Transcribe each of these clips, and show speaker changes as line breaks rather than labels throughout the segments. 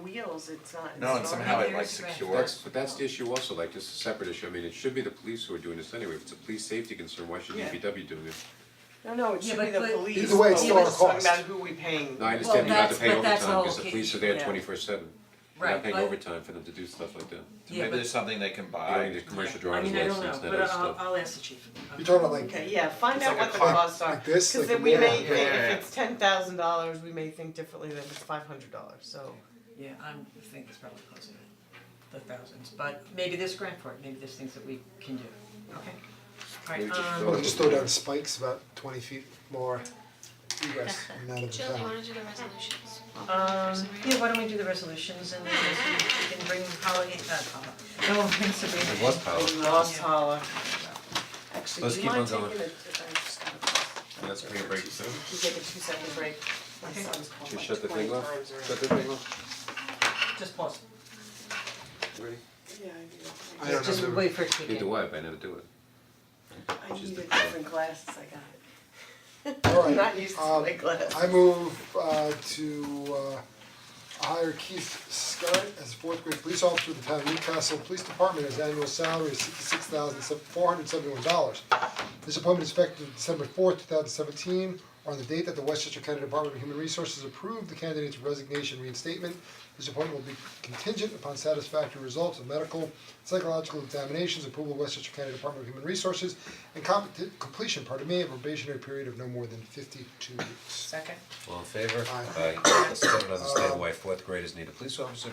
wheels, it's not, it's
No, and
not
somehow it like
years.
secures.
That's, but that's the issue also, like, just a separate issue, I mean, it should be the police who are doing this anyway, if it's a police safety concern, why should
Yeah.
DPW doing it?
No, no, it
Yeah,
should be
but-
the
but-
police,
Either way, it's
but
still
we're
our
just talking
cost.
about who we paying.
No, I understand you have to
that's-
pay
but that's
overtime,
all
because the
okay,
police are there
yeah.
twenty-four seven, they're
Right,
not paying
but-
overtime for them to do stuff like that.
Yeah,
Maybe
but,
there's something they can
They don't
buy.
need a commercial
I
driver's
mean, I don't know,
license,
but
that
uh,
other
I'll,
stuff.
I'll ask the chief.
You're talking about like,
Okay, yeah, find
It's
out
like
what
a
the
clock
costs are,
like this,
cause
like
then
a
we
mirror.
may
Yeah,
think,
yeah, yeah.
if it's ten thousand dollars, we may think differently than if it's five hundred dollars, so.
Yeah, I'm, I think it's probably closer to the thousands, but maybe there's grant for it, maybe there's things that we can do, okay?
Maybe
Alright,
just
um,
throw
well, just throw down spikes about twenty feet more egress and out of the
Jill, you
town.
wanna do the resolutions?
Um, yeah, why don't we do the resolutions and then we can bring Holly, uh, Holly, no, we'll bring Sabrina.
It was power,
Oh, We lost Holla. Actually,
Let's
do you
keep
mind
on going.
taking a, I just gotta-
uh,
let's bring a break soon,
we take a two second break, my
Okay.
son's called
should we
like
shut the
twenty
thing
times already.
off, shut the thing off,
in. Just pause,
ready?
Yeah, I
I don't
just
know,
wait for it to
Either
begin.
way, but I never do it.
do, I needed different glasses, I got it.
alright,
I'm not used to
um,
my glasses.
I move uh to uh hire Keith Scott as fourth grade police officer of the town of Newcastle Police Department. His annual salary is sixty-six thousand four hundred seventy-one dollars. This appointment is effective December fourth, two thousand seventeen, on the date that the Westchester County Department of Human Resources approved the candidate's resignation reinstatement. This appointment will be contingent upon satisfactory results of medical, psychological examinations, approval of Westchester County Department of Human Resources, and compet- completion, pardon me, of a probationary period of no more than fifty-two weeks.
Second.
All in favor?
Aye. Um,
Let's try to understand why fourth graders need a police officer,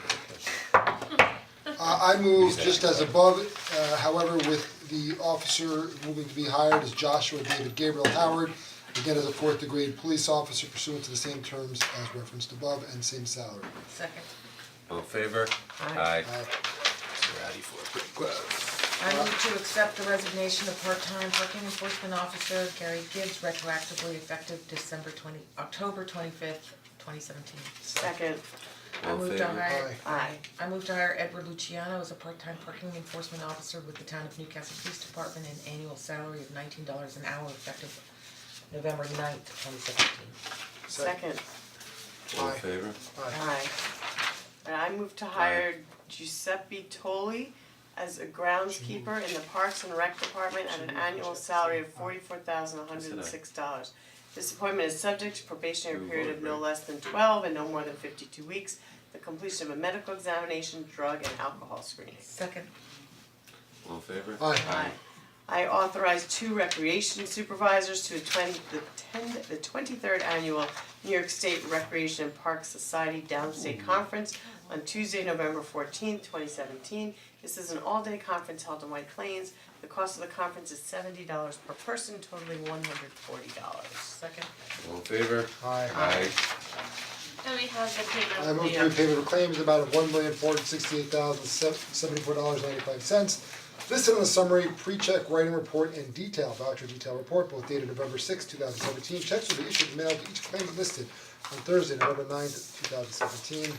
but okay.
Uh, I move just as above, uh, however, with the officer moving to be hired as Joshua David Gabriel Howard, again as a fourth degree police officer pursuant to the same terms as referenced above and same salary.
Second.
All in favor?
Aye.
Uh,
Ready for a quick glove.
I move to accept the resignation of part-time parking enforcement officer Gary Gibbs retroactively effective December twenty, October twenty-fifth, twenty seventeen.
Second,
I
All in
move to
favor?
hire,
aye,
I move to hire Edward Luciano as a part-time parking enforcement officer with the town of Newcastle Police Department an annual salary of nineteen dollars an hour effective November 9th, twenty seventeen.
second,
All in
Aye.
favor?
aye.
aye. And I move to hire Giuseppe Toli as a groundskeeper in the Parks and Rec Department at an annual salary of forty-four thousand one hundred and six dollars. This appointment is subject to probationary
Move
period
on,
of no
right.
less than twelve and no more than fifty-two weeks, the completion of a medical examination, drug and alcohol screening.
Second.
All in favor?
Aye.
I authorize two recreation supervisors to attend the ten, the twenty-third annual New York State Recreation and Park Society Downstate Conference on Tuesday, November fourteenth, twenty seventeen. This is an all-day conference held in White Plains. The cost of the conference is seventy dollars per person, totaling one hundred forty dollars.
Second.
All in favor?
Aye.
Aye.
Then we have the payment.
I move to repay the claims in the amount of one million four hundred sixty-eight thousand seventy-four dollars ninety-five cents. Listed in the summary, pre-check writing report and detail voucher detail report, both dated November sixth, two thousand seventeen. Checks will be issued and mailed to each claimant listed on Thursday, November 9th, two thousand seventeen.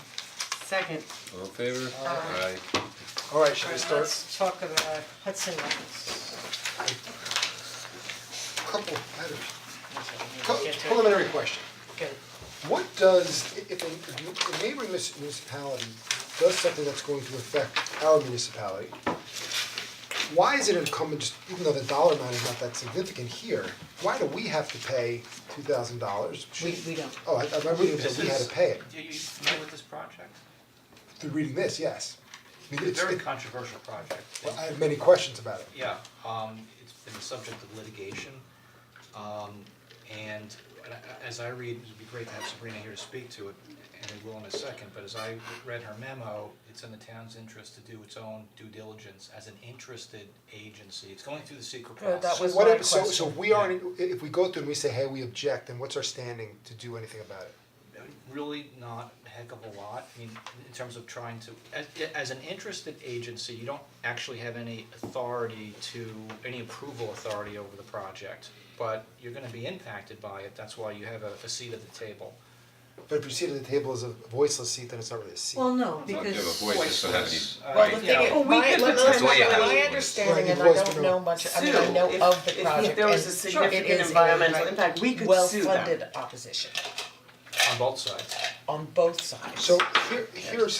Second,
All in favor? Aye.
Alright, should we
Alright,
start?
let's talk about Hudson Rockets.
Couple, I had a cou-
Get to it.
preliminary question.
Good.
What does, i- if a if a neighboring mus- municipality does something that's going to affect our municipality, why is it incumbent, just even though the dollar amount is not that significant here, why do we have to pay two thousand dollars?
We, we don't.
Oh, I I remember reading that we had to pay it,
Are you familiar with this project?
through reading this, yes. I mean,
It's
it's,
a very
it-
controversial project.
I have many questions about it.
Yeah, um, it's been the subject of litigation. Um, and a- as I read, it'd be great to have Sabrina here to speak to it, and we will in a second, but as I read her memo, it's in the town's interest to do its own due diligence as an interested agency. It's going through the secret
Oh, that
process.
was
What
my
if, so so
question.
we aren't, i- if we go through and we say, hey, we object, then what's our standing to do anything about it?
really not a heck of a lot, I mean, in terms of trying to, as, as an interested agency, you don't actually have any authority to, any approval authority over the project, but you're gonna be impacted by it, that's why you have a, a seat at the table.
But if you sit at the table as a voiceless seat, then it's not really a seat.
Well, no,
Don't give a
because
voice, just don't have any.
Well, the
Uh,
thing
yeah.
is, my,
could
let's-
potentially-
my
Right,
understanding,
the
and I
voice
don't
control.
know much, I mean,
Sue,
I know
if-
of
if
the
there
project,
was a
and sure, it
significant
is a
environmental impact, we could sue them.
well-funded opposition
On both sides.
on both sides.
So here, here's